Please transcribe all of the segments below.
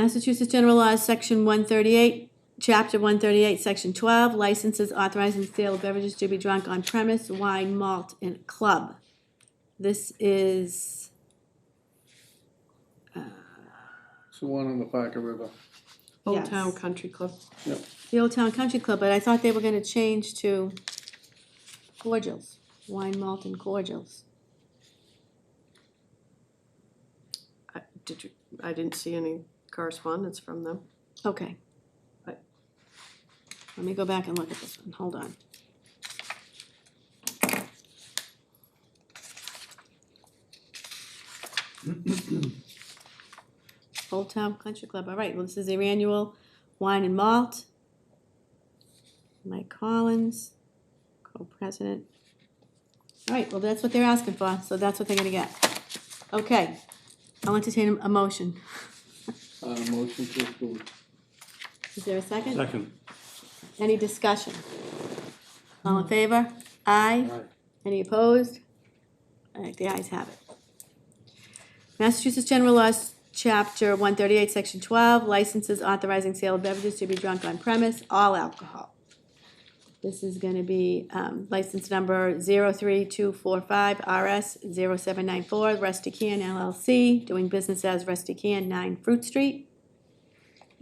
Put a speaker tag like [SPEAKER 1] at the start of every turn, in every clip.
[SPEAKER 1] Massachusetts General Laws, Section one thirty-eight, Chapter one thirty-eight, Section twelve, licenses authorizing the sale of beverages to be drunk on premise, wine, malt, and club. This is,
[SPEAKER 2] It's the one on the Parker River.
[SPEAKER 3] Old
[SPEAKER 1] Yes.
[SPEAKER 3] Town Country Club.
[SPEAKER 1] the Old Town Country Club, but I thought they were gonna change to cordials, wine, malt, and cordials.
[SPEAKER 3] I- Did you, I didn't see any correspondence from them.
[SPEAKER 1] Okay.
[SPEAKER 3] Right.
[SPEAKER 1] Let me go back and look at this one, hold on. Old Town Country Club, all right, well, this is their annual wine and malt. Mike Collins, co-president. All right, well, that's what they're asking for, so that's what they're gonna get. Okay, I'll entertain a motion.
[SPEAKER 2] Uh, motion to approve.
[SPEAKER 1] Is there a second?
[SPEAKER 4] Second.
[SPEAKER 1] Any discussion? All in favor? Aye.
[SPEAKER 2] Aye.
[SPEAKER 1] Any opposed? All right, the ayes have it. Massachusetts General Laws, Chapter 138, Section 12, licenses authorizing sale of beverages to be drunk on premise, all alcohol. This is going to be um, license number 03245RS0794, Rusty Can LLC, doing business as Rusty Can, 9 Fruit Street.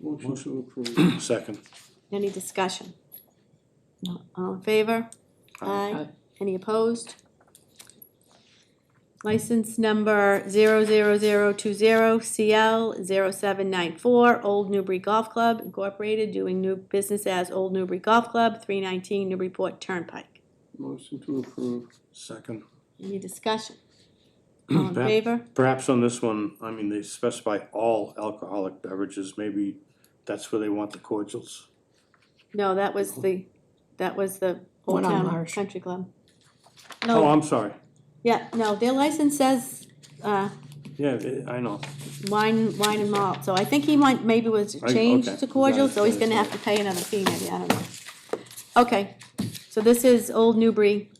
[SPEAKER 2] Motion to approve.
[SPEAKER 4] Second.
[SPEAKER 1] Any discussion? No, all in favor?
[SPEAKER 5] Uh,
[SPEAKER 1] Aye. Any opposed? License number 00020CL0794, Old Newbury Golf Club Incorporated, doing new business as Old Newbury Golf Club, 319 Newburyport Turnpike.
[SPEAKER 2] Motion to approve.
[SPEAKER 4] Second.
[SPEAKER 1] Any discussion? All in
[SPEAKER 4] Pat?
[SPEAKER 1] favor?
[SPEAKER 4] Perhaps on this one, I mean, they specify all alcoholic beverages, maybe that's where they want the cordials.
[SPEAKER 1] No, that was the, that was the Old
[SPEAKER 5] One on
[SPEAKER 1] Town
[SPEAKER 5] Marsh.
[SPEAKER 1] Country Club.
[SPEAKER 4] Oh,
[SPEAKER 1] No,
[SPEAKER 4] I'm sorry,
[SPEAKER 1] yeah, no, their license says, uh,
[SPEAKER 4] yeah, I- I know,
[SPEAKER 1] wine, wine and malt, so I think he might, maybe was
[SPEAKER 4] I-
[SPEAKER 1] changed
[SPEAKER 4] okay.
[SPEAKER 1] to cordial,
[SPEAKER 4] Got it,
[SPEAKER 1] so he's
[SPEAKER 4] got it,
[SPEAKER 1] gonna have
[SPEAKER 4] got
[SPEAKER 1] to pay another fee maybe, I don't know. Okay, so this is Old Newbury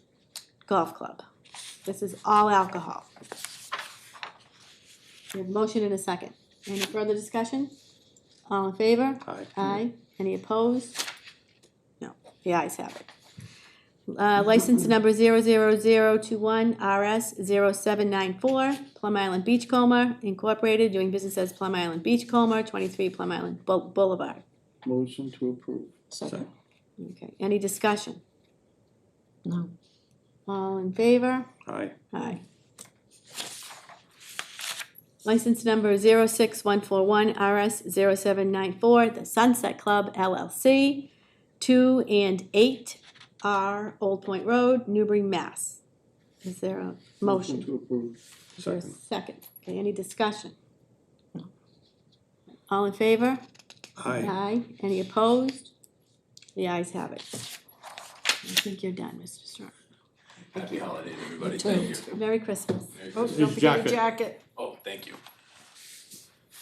[SPEAKER 1] Golf Club. This is all alcohol. We have a motion and a second. Any further discussion? All in favor?
[SPEAKER 4] aye.
[SPEAKER 1] Aye. Any opposed? No, the ayes have it. Uh, license number zero zero zero two one RS zero seven nine four, Plum Island Beachcomber Incorporated, doing business as Plum Island Beachcomber, twenty-three Plum Island Bou- Boulevard.
[SPEAKER 2] Motion to approve.
[SPEAKER 5] Second,
[SPEAKER 1] Okay, any discussion?
[SPEAKER 5] no.
[SPEAKER 1] All in favor?
[SPEAKER 4] Aye,
[SPEAKER 1] Aye. License number 06141RS0794, The Sunset Club LLC, 2 and 8 R Old Point Road, Newbury, Mass. Is there a motion?
[SPEAKER 2] to approve.
[SPEAKER 1] Is there a
[SPEAKER 4] Second.
[SPEAKER 1] second? Okay, any discussion? All in favor? Uh,
[SPEAKER 4] aye.
[SPEAKER 1] Any opposed? The ayes have it. I think you're done, Mr. Strong.
[SPEAKER 6] Happy holidays, everybody.
[SPEAKER 5] too.
[SPEAKER 6] Thank you.
[SPEAKER 1] Merry Christmas.
[SPEAKER 6] Merry
[SPEAKER 3] Oh,
[SPEAKER 6] Christmas.
[SPEAKER 3] don't forget
[SPEAKER 4] jacket.
[SPEAKER 3] your jacket.
[SPEAKER 6] Oh, thank you.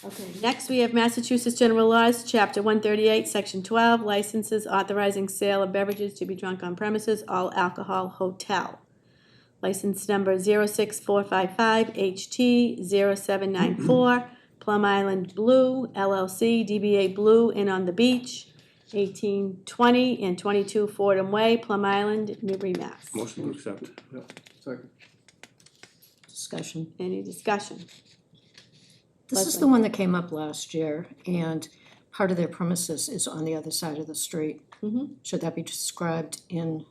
[SPEAKER 1] Okay, next we have Massachusetts General Laws, Chapter one thirty-eight, Section twelve, licenses authorizing sale of beverages to be drunk on premises, all alcohol hotel. License number zero six four five five HT 794 Plum Island Blue LLC, DBA Blue and on the Beach, eighteen twenty and twenty-two Fordham Way, Plum Island, Newbury, Mass.
[SPEAKER 4] Motion to accept,
[SPEAKER 2] Second.
[SPEAKER 5] Discussion.
[SPEAKER 1] Any discussion?
[SPEAKER 5] This is the one that came up last year, and part of their premises is on the other side of the street.
[SPEAKER 1] Mhm.
[SPEAKER 5] Should that be described in,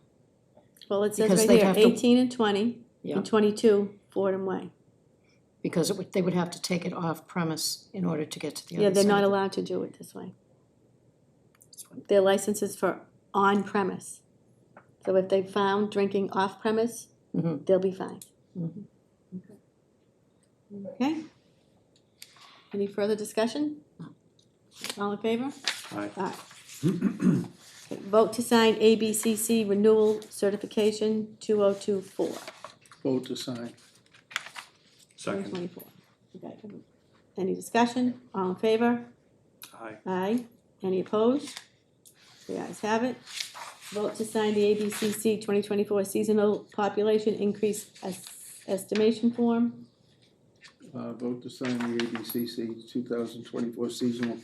[SPEAKER 1] Well, it says
[SPEAKER 5] Because
[SPEAKER 1] right
[SPEAKER 5] they
[SPEAKER 1] here,
[SPEAKER 5] have to-
[SPEAKER 1] eighteen and twenty
[SPEAKER 5] yeah,
[SPEAKER 1] and twenty-two Fordham Way.
[SPEAKER 5] because it would, they would have to take it off premise in order to get to the other
[SPEAKER 1] Yeah,
[SPEAKER 5] side.
[SPEAKER 1] they're not allowed to do it this way. Their license is for on premise. So if they found drinking off premise,
[SPEAKER 5] Mhm.
[SPEAKER 1] they'll be fined.
[SPEAKER 5] Mhm.
[SPEAKER 1] Okay? Any further discussion? All in favor?
[SPEAKER 4] aye.
[SPEAKER 1] Aye. Okay, Vote to sign ABCC renewal certification two oh two four.
[SPEAKER 2] Vote to sign.
[SPEAKER 4] Second,
[SPEAKER 1] 2024. Okay. Any discussion? All in favor?
[SPEAKER 4] aye.
[SPEAKER 1] Aye. Any opposed? The ayes have it. Vote to sign the ABCC 2024 Seasonal Population Increase Es- Estimation Form.
[SPEAKER 2] Uh, vote to sign the ABCC two thousand twenty-four seasonal